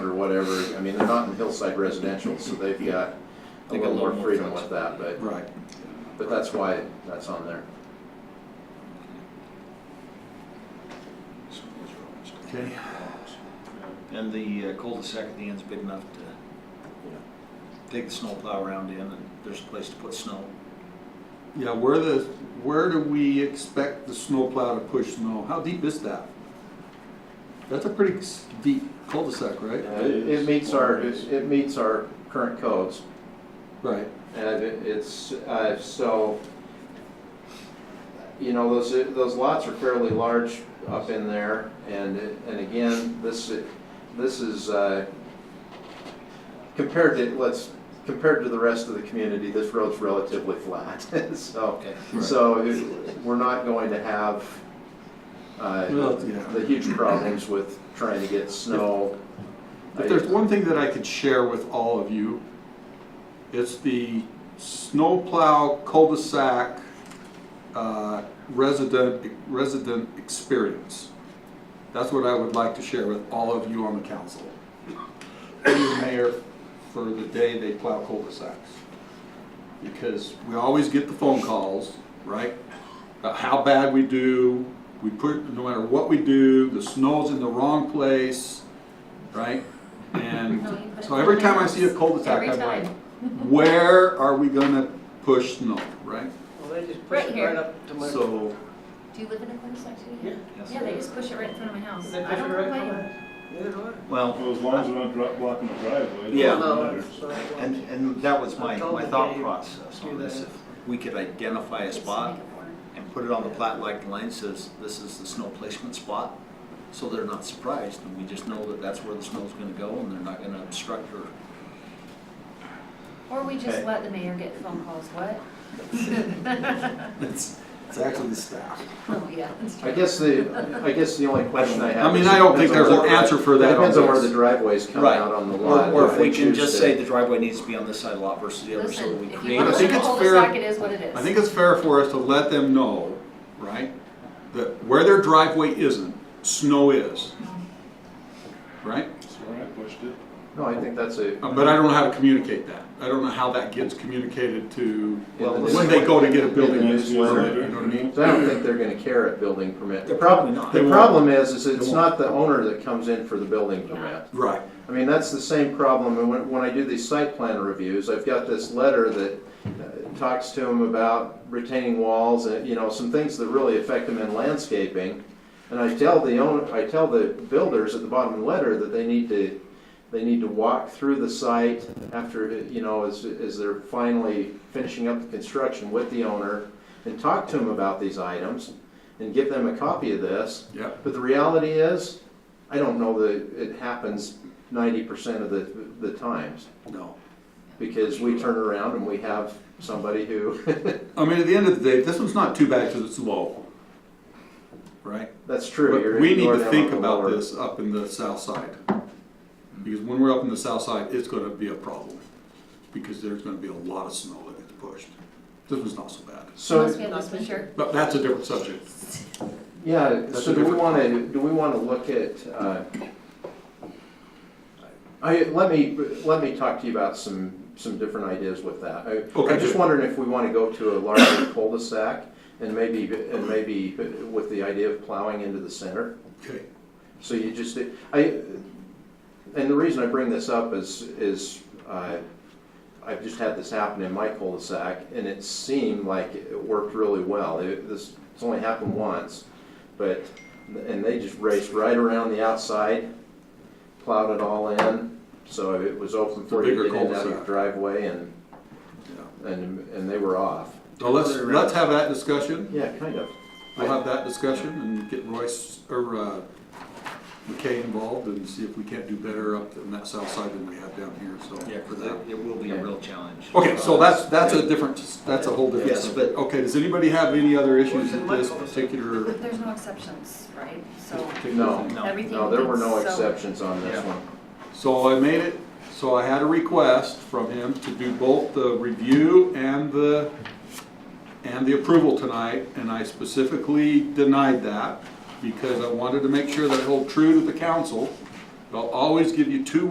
whatever. I mean, they're not in hillside residential, so they've got a They got little more more freedom with flexibility. that, but, Right. but that's why that's on there. Okay. And the uh, cul-de-sac at the end's big enough to take the snow plow around in, and there's a place to put snow. Yeah, where the, where do we expect the snowplow to push snow? How deep is that? That's a pretty s- deep cul-de-sac, right? Uh, It it meets our, it it meets our current codes. Right. And it- it's, uh, so, you know, those, those lots are fairly large up in there, and, it- and again, this, this is, uh, compared to, let's, compared to the rest of the community, this road's relatively flat, so, Okay. so it- we're not going to have, uh, Well, yeah. the huge problems with trying to get snow. If there's one thing that I could share with all of you, it's the snowplow cul-de-sac uh, resident, resident experience. That's what I would like to share with all of you on the council. Thank you, Mayor, for the day they plow cul-de-sacs. Because we always get the phone calls, right? About how bad we do, we put, no matter what we do, the snow's in the wrong place, right? And No, you put so every time I it in see a cul-de-sac, every I'm like, time. where are we gonna push snow, right? Well, they just Right push it here. right up to my. So, Do you live in a cul-de-sac too? Yeah. Yes. Yeah, they just push it right in front of my house. They I push it don't right complain. Neither do I. Well, Well, as long as we're not dro- blocking the driveway. it Yeah. No, doesn't it's- matter. and, and that was my, my thought process Do on this. that. If we could identify a Just spot make it work. and put it on the plat like the line says, this is the snow placement spot, so they're not surprised, and we just know that that's where the snow's gonna go, and they're not gonna obstruct or Or we just Okay. let the mayor get phone calls, what? it's, it's actually the staff. Oh, yeah, that's I true. guess the, I guess the only question I have. I mean, is it I don't think depends there's on an where- answer for It that. depends on where the this. driveways come Right. out on the Or, lot. or if they we can choose just to- say the driveway needs to be on this side of the lot versus the other, so that Listen, we if create you I want a to think live in a it's cul-de-sac, fair- it is what it is. I think it's fair for us to let them know, right, that where their driveway isn't, snow is, Mm-hmm. right? So when I pushed it, No, I think that's a. Uh, But I don't know how to communicate that. I don't know how that gets communicated to, Well, when they go to get a building Yeah, permit, you know what I mean? 'cause I don't think they're gonna care at building permit. They're probably not. The They won't. problem is, is it's won't. not the owner that comes in for the building permit. Right, I mean, that's the same problem, and when, when I do these site plan reviews, I've got this letter that uh, talks to them about retaining walls, and, you know, some things that really affect them in landscaping. And I tell the own, I tell the builders at the bottom of the letter that they need to, they need to walk through the site after, you know, as, as they're finally finishing up the construction with the owner, and talk to them about these items, and give them a copy of this, yeah. but the reality is, I don't know that it happens ninety percent of the, the times, No. because we turn around and we have somebody who, I mean, at the end of the day, this one's not too bad because it's low, right? that's true. But you're- we need you're to down think on the about lower- this up in the south side. Because when we're up in the south side, it's gonna be a problem, because there's gonna be a lot of snow that gets pushed. This one's not so bad, Unless So, we have this winter. but that's a different subject. yeah, That's so a do we different- wanna, do we wanna look at, uh, I, let me, let me talk to you about some, some different ideas with that. I, Okay, I'm just good. wondering if we wanna go to a larger cul-de-sac, and maybe, and maybe with the idea of plowing into the center. Okay, So you just, I, and the reason I bring this up is, is uh, I've just had this happen in my cul-de-sac, and it seemed like it worked really well. It- This, it's only happened once, but, and they just raced right around the outside, plowed it all in, so it was open for you to Bigger get in and out of your cul-de-sac. driveway, and, yeah. and, and they were off. So let's, let's have that discussion, Yeah, kind of. we'll have that discussion and get Royce, or, uh, McKay involved and see if we can't do better up in that south side than we have down here, so. Yeah, because it, it will be a real challenge. Okay, so that's, that's a different, that's a whole different. Yes, but- Okay, does anybody have any other issues What's in with my this cul-de-sac? particular? There's no exceptions, right? So particular No. thing? No. everything. No, there were no that's so- exceptions on this Yeah. one. So I made it, so I had a request from him to do both the review and the, and the approval tonight, and I specifically denied that because I wanted to make sure that I hold true to the council. I'll always give you two